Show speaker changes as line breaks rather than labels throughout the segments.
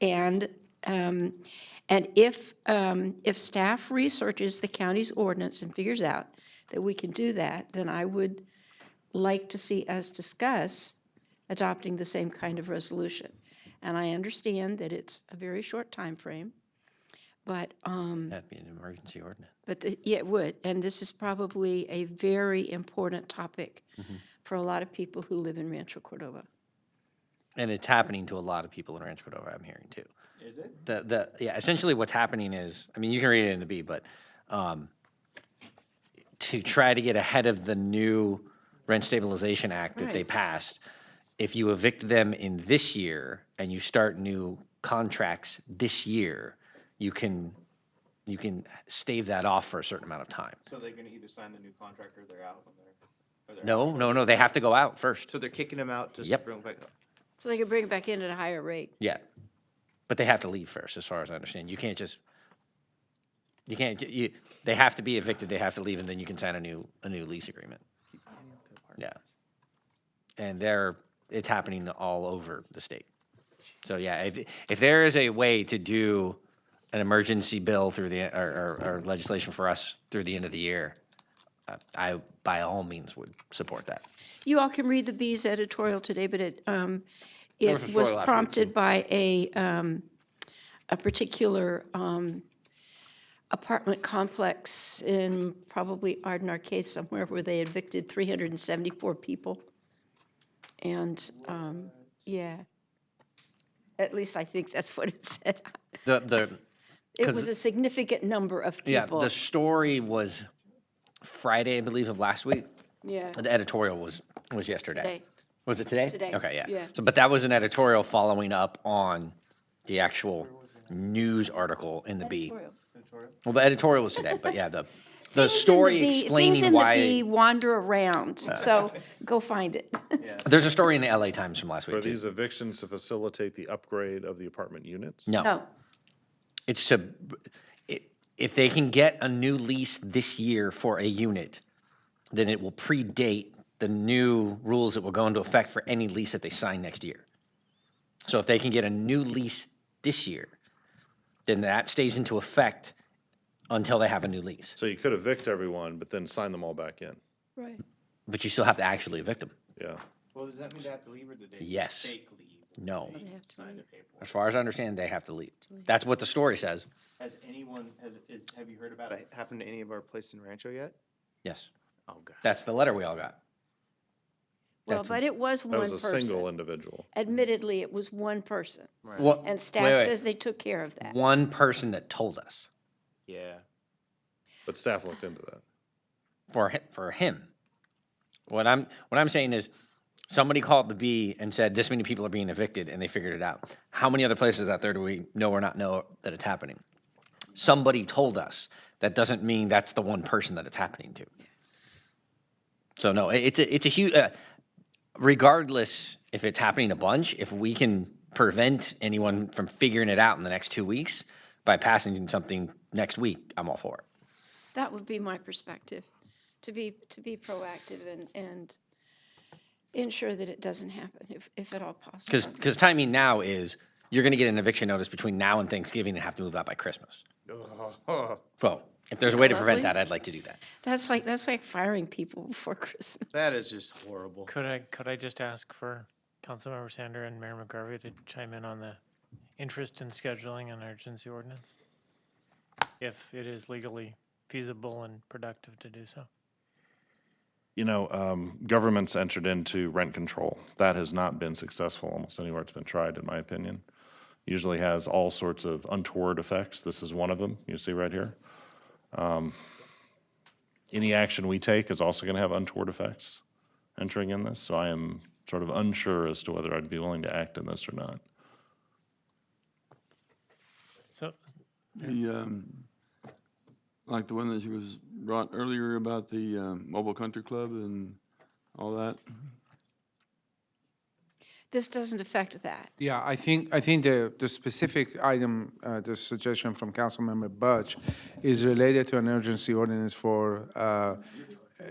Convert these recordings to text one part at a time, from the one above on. And, um, and if, um, if staff researches the county's ordinance and figures out that we can do that, then I would like to see us discuss adopting the same kind of resolution. And I understand that it's a very short time frame, but, um,
That'd be an emergency ordinance.
but the- yeah, it would, and this is probably a very important topic for a lot of people who live in Rancho Cordova.
And it's happening to a lot of people in Rancho Cordova, I'm hearing too.
Is it?
The, the, yeah, essentially what's happening is, I mean, you can read it in the B, but, um, to try to get ahead of the new Rent Stabilization Act that they
Right.
passed, if you evict them in this year and you start new contracts this year, you can, you can stave that off for a certain amount of time.
So they're gonna either sign the new contract or they're out when they're. or they're out.
No, no, no, they have to go out first.
So they're kicking them out just to
Yep.
bring them back up.
So they could bring it back in at a higher rate.
Yeah, but they have to leave first, as far as I understand. You can't just, you can't, you, they have to be evicted, they have to leave, and then you can sign a new, a new lease agreement. Yeah. And they're, it's happening all over the state. So yeah, if, if there is a way to do an emergency bill through the, or, or, or legislation for us through the end of the year, uh, I by all means would support that.
You all can read the Bee's editorial today, but it, um, it was
was last week,
prompted by a, um, a particular, um, apartment complex in probably Arden Arcade somewhere where they evicted three hundred and seventy-four people. And, um, yeah. At least I think that's what it said.
The, the,
It
'Cause-
was a significant number of
yeah,
people.
the story was Friday, I believe, of last week.
Yeah,
The editorial was, was yesterday.
Today.
Was it today?
Today,
Okay, yeah.
yeah.
So, but that was an editorial following up on the actual news article in the B. Well, the editorial was today, but yeah, the the story
things
explaining
in the bee
why
wander around. So go find it.
there's a story in the LA Times from last
Are
week too.
these evictions to facilitate the upgrade of the apartment units?
No,
No,
it's to i- if they can get a new lease this year for a unit, then it will predate the new rules that will go into effect for any lease that they sign next year. So if they can get a new lease this year, then that stays into effect until they have a new lease.
So you could evict everyone, but then sign them all back in.
right.
But you still have to actually evict them.
Yeah.
Well, does that mean they have to leave or did they?
Yes.
Fake leave.
No.
They sign the paperwork.
As far as I understand, they have to leave. That's what the story says.
Has anyone, has, is, have you heard about it? Happened to any of our place in Rancho yet?
Yes.
Oh, God.
That's the letter we all got.
Well,
That's-
but it was
That
one
was a single
person.
individual.
Admittedly, it was one person.
Well,
And
wait,
staff
wait.
says they took care of that.
One person that told us
Yeah.
But staff looked into that.
for him, for him. What I'm what I'm saying is somebody called the B and said this many people are being evicted and they figured it out. How many other places out there do we know or not know that it's happening? Somebody told us. That doesn't mean that's the one person that it's happening to. So no, it- it's a, it's a huge. Uh, regardless if it's happening a bunch, if we can prevent anyone from figuring it out in the next two weeks by passing something next week, I'm all for it.
That would be my perspective, to be, to be proactive and, and ensure that it doesn't happen if, if at all
Because
possible.
because timing now is you're going to get an eviction notice between now and Thanksgiving and have to move out by Christmas. So if there's a way to
Lovely.
prevent that, I'd like to do that.
That's like, that's like firing people before Christmas.
That is just horrible.
Could I, could I just ask for Councilmember Sander and Mayor McGarvey to chime in on the interest in scheduling an urgency ordinance? If it is legally feasible and productive to do so.
You know, um, government's entered into rent control. That has not been successful almost anywhere it's been tried, in my opinion. Usually has all sorts of untoward effects. This is one of them, you see right here. Um, Any action we take is also going to have untoward effects entering in this. So I am sort of unsure as to whether I'd be willing to act in this or not.
So,
The, um, like the one that was brought earlier about the, um, mobile country club and all that.
This doesn't affect that.
Yeah, I think, I think the, the specific item, uh, the suggestion from Councilmember Budge is related to an urgency ordinance for uh,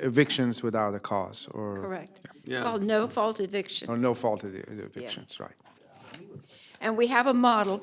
evictions without a cause or,
Correct. It's called no fault eviction.
or no fault of the the evictions, right?
And we have a model